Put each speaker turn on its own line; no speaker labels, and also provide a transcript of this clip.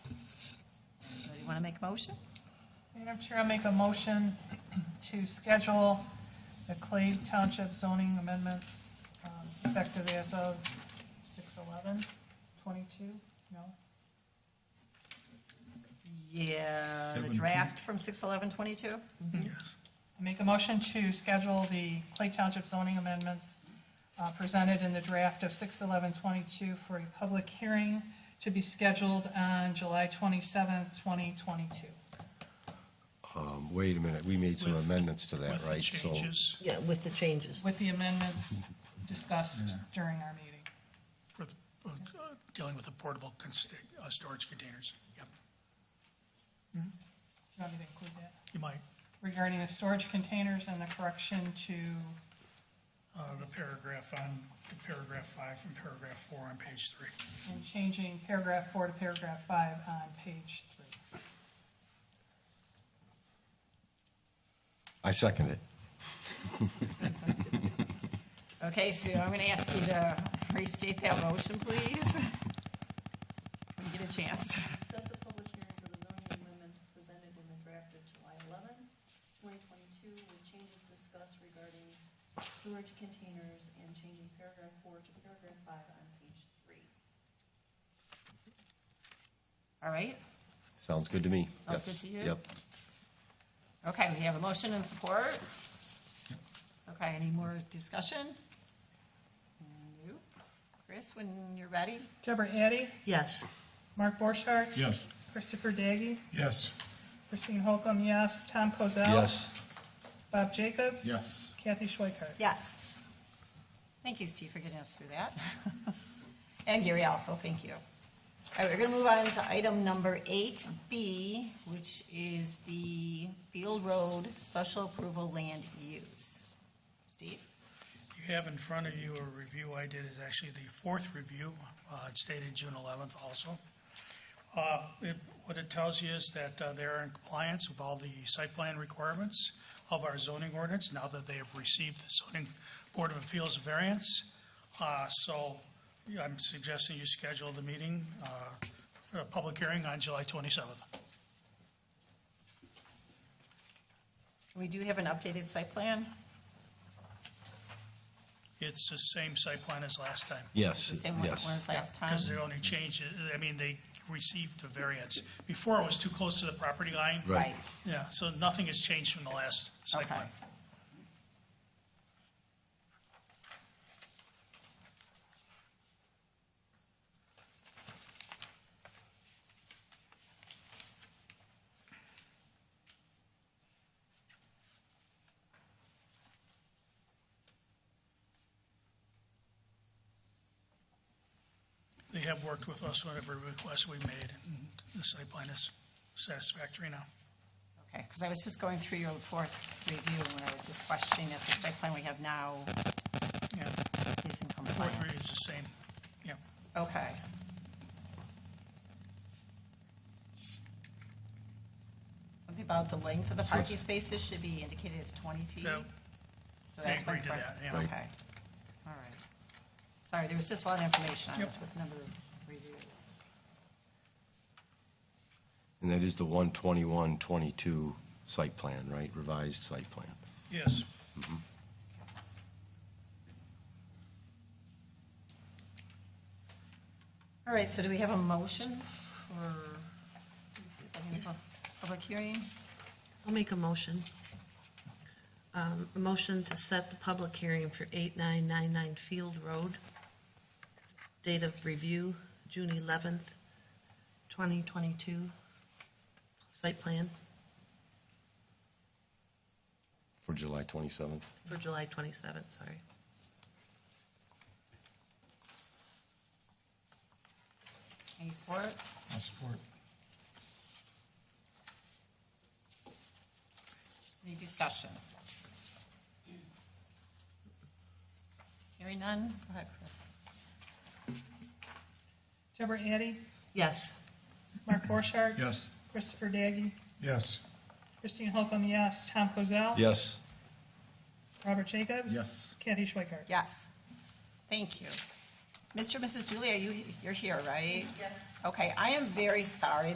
Want to make a motion?
Madam Chair, I make a motion to schedule the Clay Township zoning amendments um, effective as of 6/11, 22? No?
Yeah, the
Seven,
draft from six eleven twenty-two?
I make a motion to schedule the Clay Township zoning amendments uh, presented in the draft of 6/11/22 for a public hearing to be scheduled on July 27th, 2022.
Um, Wait a minute, we made some
With-
amendments to that,
with the
right? So
changes
Yeah, with the changes.
With the amendments discussed during our meeting.
for the, uh, dealing with the portable consta- uh, storage containers. Yep,
Do you want me to include that?
you might,
regarding the storage containers and the correction to,
uh, the paragraph on, the paragraph five from paragraph four on page three.
and changing paragraph four to paragraph five on page three.
I second it.
Okay, Sue, I'm going to ask you to restate that motion, please. When you get a chance.
Set the public hearing for the zoning amendments presented in the draft of July 11, 2022, with changes discussed regarding storage containers and changing paragraph four to paragraph five on page three.
All right?
Sounds good to me.
Sounds
Yes.
good to you?
Yep.
Okay, we have a motion and support. Okay, any more discussion? No. Chris, when you're ready?
Deborah Addy,
Yes.
Mark Borchardt.
Yes.
Christopher Daggy,
Yes.
Christine Holcomb, yes. Tom Kozel.
Yes,
Bob Jacobs.
Yes.
Kathy Schweikart.
Yes. Thank you, Steve, for getting us through that. And Gary also, thank you. All right, we're gonna move on to item number eight B, which is the Field Road Special Approval Land Use. Steve?
You have in front of you a review I did, is actually the fourth review, uh, it's dated June 11th also. Uh, it- What it tells you is that uh, they are in compliance with all the site plan requirements of our zoning ordinance, now that they have received the zoning board of appeals variance. Uh, So yeah, I'm suggesting you schedule the meeting, uh, for a public hearing on July 27th.
We do have an updated site plan,
It's the same site plan as last time.
the
yes,
same one as
yes.
last time.
Because they only changed, it- I mean, they received the variance. Before, it was too close to the property line.
Right.
Right,
Yeah, so nothing has changed from the last site
okay.
plan. They have worked with us on every request we made, and the site plan is satisfactory now.
Okay, because I was just going through your fourth review, and I was just questioning if the site plan we have now
Yeah,
is in
fourth read is
compliance.
the same, yeah.
Okay. Something about the length of the parking spaces should be indicated as twenty feet.
Yeah.
So
They
that's my
agreed to
part-
that, yeah.
Okay, all right. Sorry, there was just a lot of information on
Yep.
this with number of reviews.
And that is the 121, 22 site plan, right? Revised site plan.
Yes.
All right, so do we have a motion for setting the pu- public hearing?
I'll make a motion. Um, A motion to set the public hearing for 8999 Field Road. Date of review, June 11th, 2022. Site plan
For July 27th?
for July 27th, sorry.
Any support?
I support.
Any discussion? Hearing none, go ahead, Chris.
Deborah Addy,
Yes.
Mark Borchardt.
Yes.
Christopher Daggy,
Yes.
Christine Holcomb, yes. Tom Kozel.
Yes,
Robert Jacobs.
Yes.
Kathy Schweikart.
Yes. Thank you. Mr. and Mrs. Julia, you, you're here, right? Yes. Okay, I am very sorry